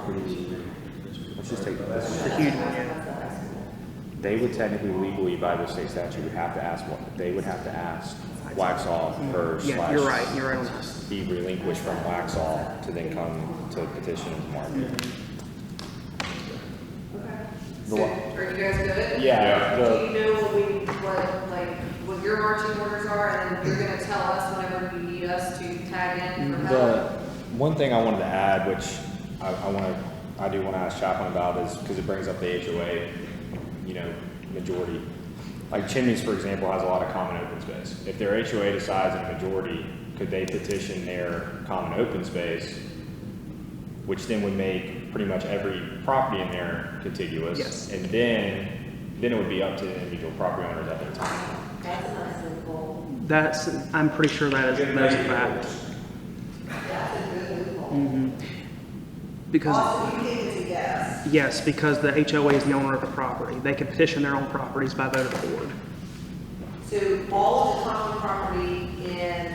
property, let's just take, this is a huge one. They would technically legally, by the state statute, would have to ask, what they would have to ask Waxaw for Yeah, slash. you're right, you're right on that. Be relinquished from Waxaw to then come to petition and market. The So, law. Are you guys good? Yeah, Do the, you know what we, what, like, what your marching orders are, and then you're gonna tell us whenever you need us to tag in for the, help? one thing I wanted to add, which I, I wanna, I do wanna ask Chaplin about is, cause it brings up the HOA, you know, majority. Like Chimneys, for example, has a lot of common open space. If their HOA decides in a majority, could they petition their common open space? Which then would make pretty much every property in there contiguous. Yes. And then, then it would be up to the individual property owners at their time. That's not so cool. That's, I'm pretty sure that is, that's a fact. That's a good loophole. Mhm. Because, Also, you think it's a yes. yes, because the HOA is the owner of the property. They can petition their own properties by vote of the board. So all of the common property in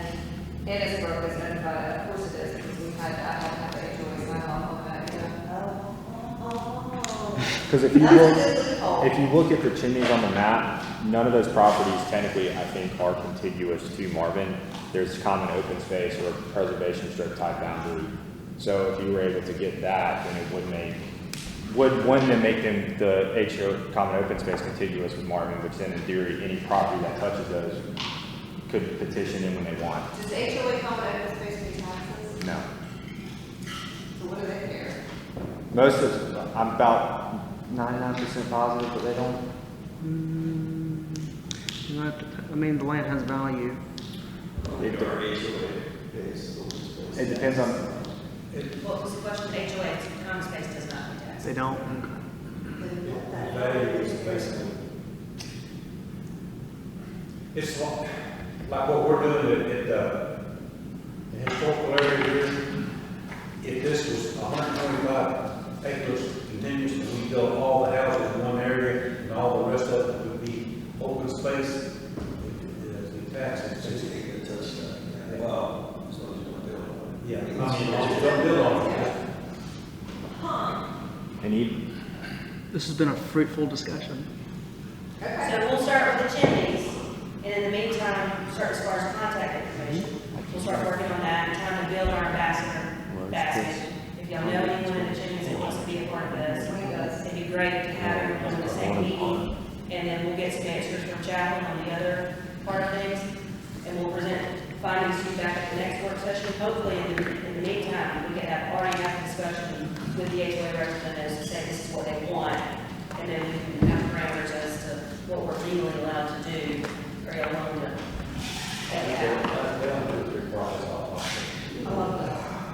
Annisburg is owned by, of course it is, because we had, I had that HOA sign off on that, yeah. Oh, Cause if you That's look. a good loophole. If you look at the chimneys on the map, none of those properties technically, I think, are contiguous to Marvin. There's common open space or preservation strip type boundary. So if you were able to get that, then it would make, would, one, then make them, the HO, common open space contiguous with Marvin, which then in theory, any property that touches those could petition in when they want. Does HOA common open space pay taxes? No. So what do they care? Most of, I'm about ninety-nine percent positive, but they don't Mm, You have to- I mean, the land has value. It de- It depends on, What was the question, HOA, common space does not pay taxes. They don't. Value is basically, it's like, like what we're doing at, at the the historical area here. If this was hundred twenty-five acres continuous, and we built all the houses in one area, and all the rest of it would be open space, the taxes, It's just, a good touchdown, yeah. Well, as long as you don't build on it. yeah, I mean, don't build on it. and even, This has been a fruitful discussion. So we'll start with the chimneys, and in the meantime, start as far as contact information. We'll start working on that, and trying to build our ambassador basket. If y'all know anyone in the chimneys that wants to be a part of this, it'd be great to have everyone in the same meeting, and then we'll get some answers from Chaplin on the other part of things, and we'll present findings to you back at the next work session. Hopefully, in the, in the meantime, we can have, already have a discussion with the HOA representatives to say this is what they want, and then we can have parameters as to what we're legally allowed to do, or allowed to.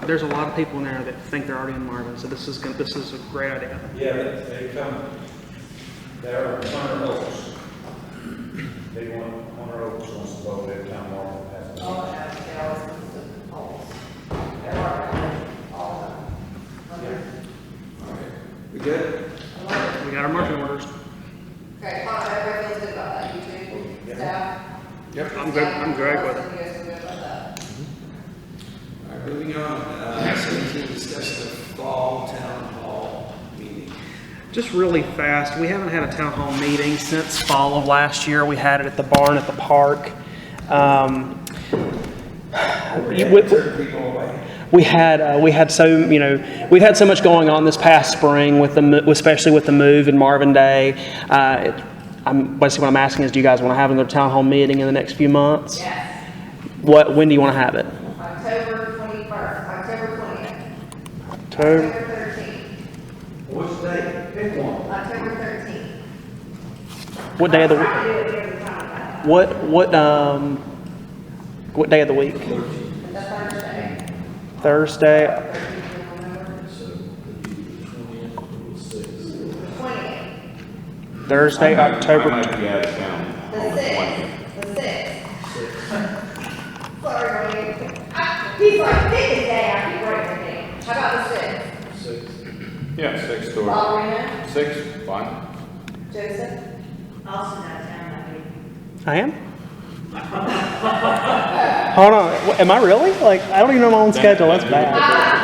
There's a lot of people in there that think they're already in Marvin, so this is, gonna- this is a great idea. Yeah, they, they come, they're hunter oaks. They want hunter oaks on the boat every time Marvin passes. all the houses, they always put the poles. There are, all of them. We good? We got our marching orders. Okay, fine, everybody feels good about that, you two, Yeah. staff? Yep. I'm good, I'm great with it. You guys feel good about that? All right, moving on, uh, seventeen, discussion of fall town hall meeting. Just really fast, we haven't had a town hall meeting since fall of last year. We had it at the barn at the park. Um, Yeah, with- turn people away. we had uh, we had so you know we've had so much going on this past spring with the mo- especially with the move and Marvin Day. Uh, it, I'm basically what I'm asking is, do you guys want to have another town hall meeting in the next few months? Yes, What when do you want to have it? October twenty-first, October twentieth, October. October thirteenth, Which day? Pick one. October thirteenth. What day of the week? I do it every time, What what um what day of the week? but that's Thursday. Thursday. Twentieth, Thursday, October. Oh, the sixth, the sixth. Sorry, Wayne. I- He's like, pick a day, I keep writing the name. How about the sixth? Yeah, six to Ballerina, Six, fine. Joseph? Also, not town, I mean, I am. Hold on. Am I really? Like I don't even know my own schedule. That's bad. Ah,